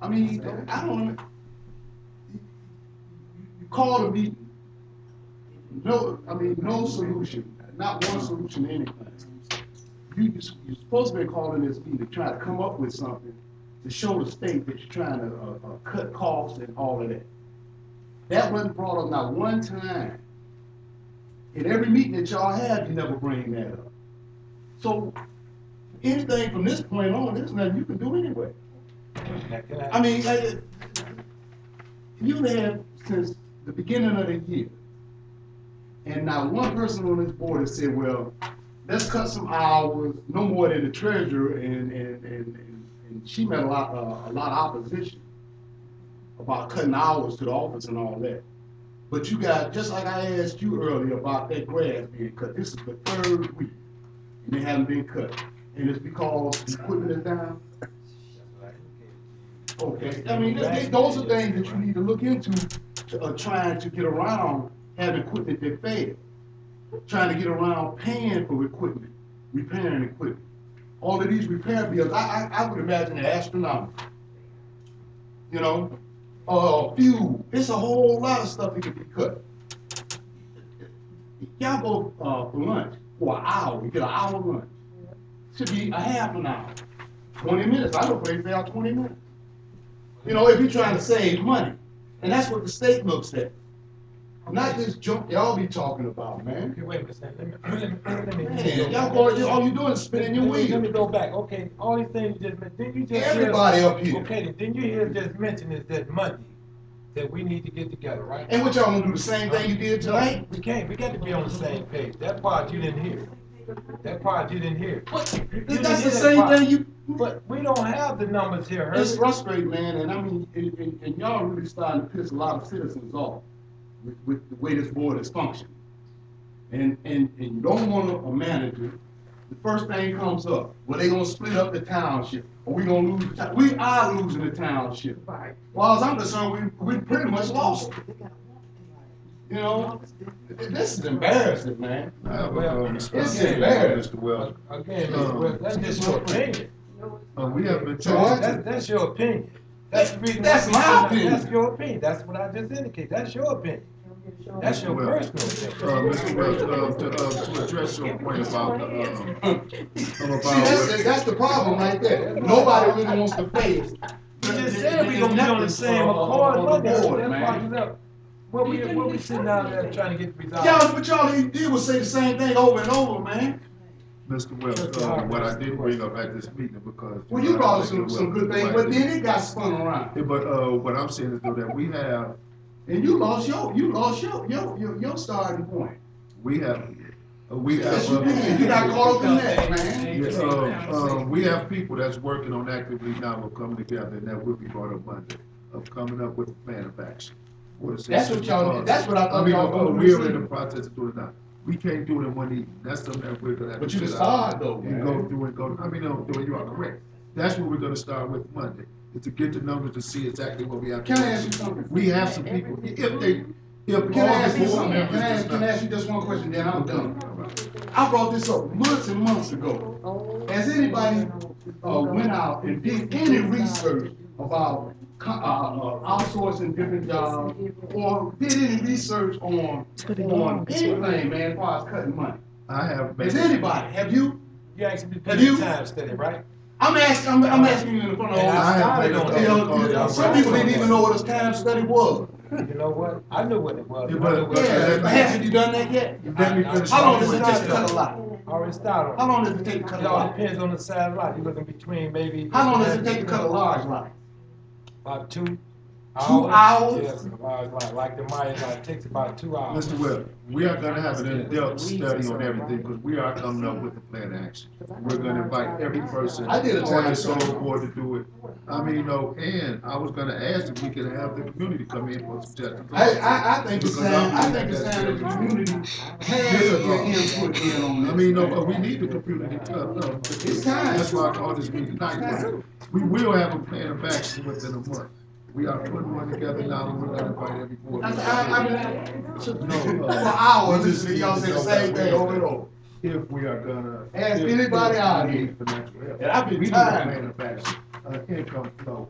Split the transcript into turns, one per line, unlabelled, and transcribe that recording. I mean, I don't, you call a meeting, no, I mean, no solution, not one solution to anything. You, you're supposed to be calling this meeting to try to come up with something to show the state that you're trying to, uh, uh, cut costs and all of that. That wasn't brought up not one time. In every meeting that y'all have, you never bring that up. So, anything from this point on, there's nothing you can do anyway. I mean, uh, I- you have since the beginning of the year, and not one person on this board has said, well, let's cut some hours, no more than the treasurer, and, and, and, and and she met a lot, uh, a lot of opposition about cutting hours to the office and all that. But you got, just like I asked you earlier about that grass being cut, this is the third week, and it hasn't been cut, and it's because the equipment is down? Okay, I mean, th- th- those are things that you need to look into, to, uh, trying to get around having equipment that failed. Trying to get around paying for equipment, repairing equipment. All of these repair bills, I, I, I would imagine are astronomical. You know, uh, fuel, it's a whole lot of stuff that could be cut. Y'all go, uh, for lunch, for an hour, you get an hour lunch. Should be a half an hour, twenty minutes, I don't pay out twenty minutes. You know, if you're trying to save money, and that's what the state looks at. Not this junk y'all be talking about, man.
Okay, wait a minute, Sam. let me, let me, let me.
Man, y'all going, all you doing is spinning your
Let me- Let me
wheels.
go back, okay, all these things you just, men- didn't you just? hear-
Everybody up here.
Okay, then didn't you hear just mention is that Monday, that we need to get together, right?
And what y'all gonna do, the same thing you did tonight?
We can't, we got to be on the same page, that part you didn't hear, that part you didn't hear.
What?
You- you didn't
That's
hear
the
that
same
part.
thing you,
But we don't have the numbers here,
it's
Herbie.
frustrating, man, and I mean, and, and, and y'all really starting to piss a lot of citizens off with, with the way this board is functioning. And, and, and you don't want a manager, the first thing comes up, well, they gonna split up the township, or we gonna lose the town, we are losing the township.
Right.
Well, as I'm concerned, we, we pretty much lost, it, you know? This is embarrassing, man.
Uh, well, uh, Mr.
It's
Again,
embarrassed.
Mr. Wells,
Again, Mr. Webb, that's just your opinion.
uh, we have been
So what?
talking,
That's, that's your opinion. That's the reason.
That's
why-
my opinion.
That's your opinion. That's what I just indicated. That's your opinion. That's your
Well,
personal opinion.
uh, Mr. Wells, uh, to, uh, to address your point about, the, uh, about.
See, that's, the- that's the problem right there. Nobody really wants to face.
You just said we gonna be on the same accord Monday. That's why you left. What we, what we sitting out there trying to get resolved?
Y'all, but y'all even did was say the same thing over and over, man.
Mr. Wells, uh, what I did bring up at this meeting because.
Well, you brought us some,
Well,
some good things,
right.
but then it got spun around.
Yeah, But, uh, what I'm saying is though that we have,
And you lost your, you lost your, your, your, your starting point.
we have, uh, we have.
Yes, you
uh,
did. You got caught up in that, man.
Yes, uh, uh, we have people that's working on actively now of coming together, and that will be brought up Monday, of coming up with a plan of action. for the
That's what y'all-
citizens.
that's what I thought
mean,
y'all
uh,
were
We're in
doing.
the process of doing that. We can't do it in one evening. That's something that we're gonna have to.
But you can
sit out.
start, though,
You
man.
go through and go, I mean, no, no, you are correct. That's what we're gonna start with Monday, is to get the numbers to see exactly what we have. to
Can I
do.
ask you something?
We have some people, if they, if all the board
Can I ask you something?
members
Can I
does
ask, can I
not-
ask you just one question, then I'm done? I brought this up months and months ago. Has anybody, uh, went out and did any research about, co- uh, uh, outsourcing different jobs? Or did any research on, on anything, man, as far as cutting money?
I have.
Has
made-
anybody, have you?
You actually did
Have you-
plenty of time study, right?
I'm asking, I'm, I'm asking you in front of all.
And I started
I-
on
You
that.
know, you know, Some people didn't even know what a time study was.
You know what? I knew what it was.
Yeah,
I knew
but-
what it
Yeah,
was.
but haven't you done that yet?
Let me finish.
How long
my
does it
point.
take to cut a lot?
I Already started.
How long does it take to cut
It
a
all
lot?
depends on the size of lot. You're looking between maybe.
How long does it take to cut a large lot?
About two.
hours?
Yes, a large lot, like the Myers lot, it takes about two hours.
Mr. Webb, we are gonna have an in-depth study on everything, because we are coming up with a plan of action. We're gonna invite every person
I
on
did a
the
time
soul
study.
board to do it. I mean, no, and I was gonna ask if we could have the community come in for suggestions.
I, I, I think it's
Because
time, I
I'm-
think it's time the community has
Here's a
their
thought.
input in on this.
I mean, no, but we need the community to come, no.
It's time.
That's why I called this meeting tonight. We will have a plan of action within a month. We are putting one together now, and we're gonna invite every board.
I,
member.
I, I mean, I-
No,
for
uh,
hours,
we just
listen to y'all
need
say
to
the
know
same
that
thing
we're-
over and over.
if we are gonna.
Ask
if-
anybody
if
out
we
here.
need financial help.
And I've been
We need a
tired.
plan of action, uh, income flow.